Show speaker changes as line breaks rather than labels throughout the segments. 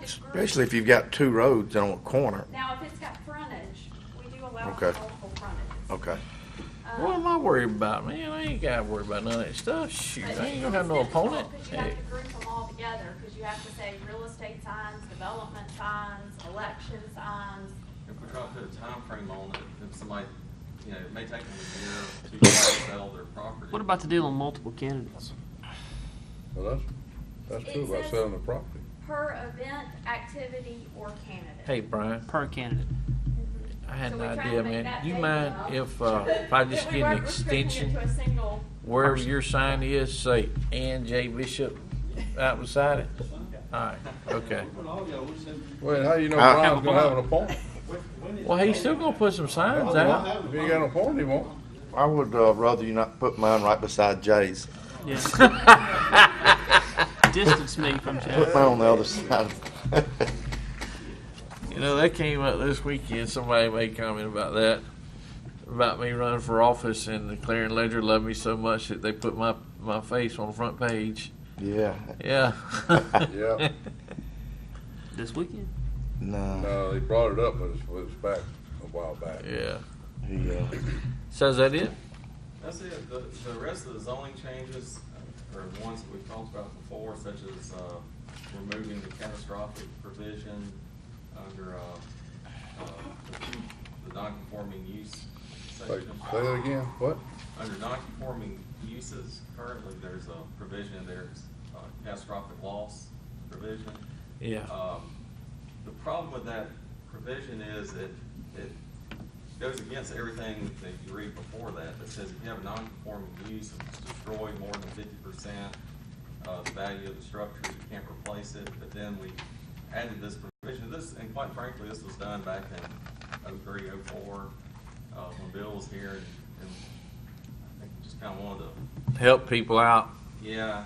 it's grouped.
Especially if you've got two roads on a corner.
Now, if it's got frontage, we do allow for
Okay.
multiple frontages. Um,
Okay.
What am I worried about, man? I ain't gotta worry about none of that stuff. Shoot,
But
I ain't gonna
it's
have no
difficult
opponent.
'cause you
Hey,
have to group them all together, because you have to say real estate signs, development signs, election signs.
If we try to put a time frame on it, if somebody, you know, it may take them a year, two years to sell their property.
What about the deal on multiple candidates?
Well, that's, that's true about selling the property.
Per event, activity, or candidate.
Hey, Brian,
Per candidate.
I had
So
an
we try to
idea,
make
man.
that
You
big
mind
enough
if, uh, if I just
that we
get an
weren't restricting it
extension
To a single,
wherever your sign is, say Ann J. Bishop out beside it? Alright, okay.
Well, how you know
Ah.
I-
Brian's gonna have an appointment?
Well, he's still gonna put some signs out.
If he ain't got an appointment, he won't.
I would uh, rather you not put mine right beside Jay's.
Yeah. Distance me from
Put
Chad.
mine on the other side.
You know, that came up this weekend. Somebody made comment about that, about me running for office, and the Clarion Ledger loved me so much that they put my my face on the front page.
yeah.
Yeah.
Yeah.
This weekend?
No.
No, they uh, brought it up, but it's, it's back, a while back.
Yeah.
He, uh,
So is that it?
That's it, the, the rest of the zoning changes uh, are ones that we've talked about before, such as, uh, removing the catastrophic provision under, uh, uh, the- the non-conforming use
Say
section.
say that again, what?
Under non-conforming uses, currently, there's a provision, in there, it's uh catastrophic loss provision.
Yeah.
Um, The problem with that provision is it, it goes against everything that you read before that, that says if you have a non-conforming use, if it's destroyed more than fifty percent of the value of the structure, you can't replace it, but then we added this provision, this, and quite frankly, this was done back in 03, 04, uh, when Bill was here, and, and I think we just kinda wanted to
Help people out.
yeah,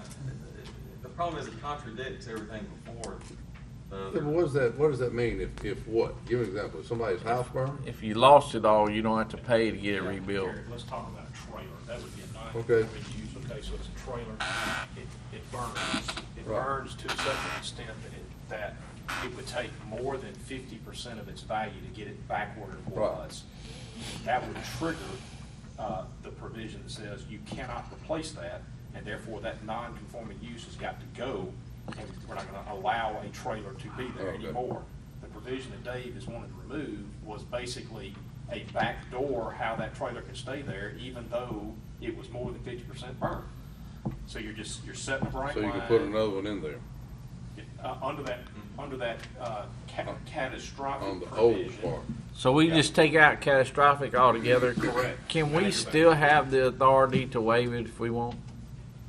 the problem is it contradicts everything before. The-
Yeah, but what does that, what does that mean if, if what? Give an example, If somebody's house burned?
If you lost it all, you don't have to pay to get it rebuilt.
Here, Let's talk about a trailer, that would be a nice.
Okay.
Okay, so it's a trailer, it, it burns, it
Right.
burns to such an extent that it, that it would take more than fifty percent of its value to get it back where it
Right.
was. That would trigger, uh, the provision that says you cannot replace that, and therefore that non-conforming use has got to go, and we're not gonna allow a trailer to be there
Okay.
anymore before. The provision that Dave is wanting to remove was basically a backdoor how that trailer could stay there, even though it was more than fifty percent burned. So you're just, you're setting a bright
So you
line.
can put another one in there
Uh, under that, under that, uh, ca-
on
catastrophic
the old
provision.
part.
So we just take out catastrophic altogether.
Correct.
Can we still have the authority to waive it if we want?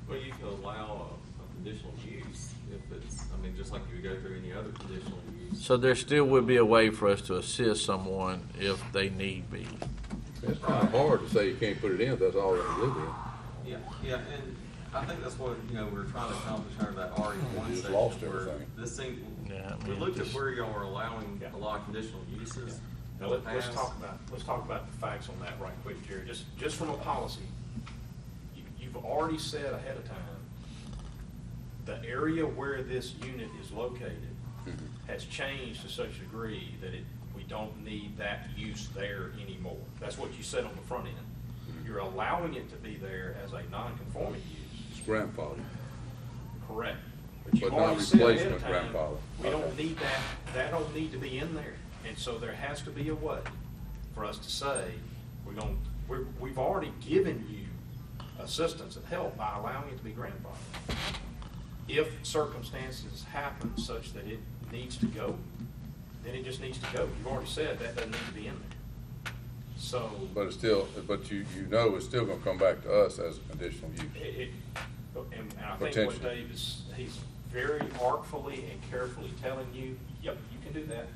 Well, you can allow a, a conditional use if it's, I mean, just like you would go through any other conditional use.
So there still would be a way for us to assist someone if they need be.
It's kinda hard to say you can't put it in if that's all that's living in.
Yeah, yeah, and I think that's what, you know, we we're trying to accomplish under that RE one
We just
section.
lost
where
everything.
This thing,
Yeah, I
we
mean,
looked at
just-
where y'all are allowing
Yeah.
a lot of conditional uses.
Now, let- let's
Pass.
talk about, let's talk about the facts on that right quick, Jerry, just, just from a policy. you- You've already said ahead of time, the area where this unit is located has changed to such a degree that it, we don't need that use there anymore. That's what you said on the front end. You're allowing it to be there as a non-conforming use,
It's grandfathered.
correct? But you've
But not
already said ahead of
replacement
time,
grandfather.
We don't
Okay.
need that, that don't need to be in there. And so there has to be a way for us to say, we're gonna, we're, we've already given you assistance and help by allowing it to be grandfathered. If circumstances happen such that it needs to go, then it just needs to go. You've already said that doesn't need to be in there. So.
But it's still, but you, you know it's still gonna come back to us as a conditional
It,
use.
it- and and I think what
Potentially.
Dave is, he's very artfully and carefully telling you, yep, you can do that.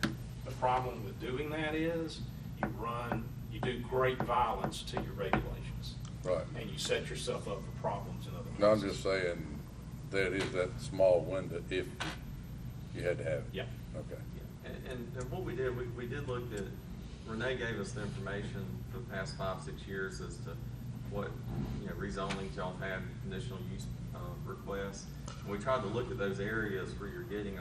The problem with doing that is you run, you do great violence to your regulations.
Right.
And you set yourself up for problems in other places.
No, I'm just saying, there is that small window if you had to have it.
Yeah.
Okay.
And, and, and what we did, we, we did look at, Renee gave us the information for the past five, six years as to what, you know, rezonings y'all have, conditional use, uh, requests. We tried to look at those areas where you're getting a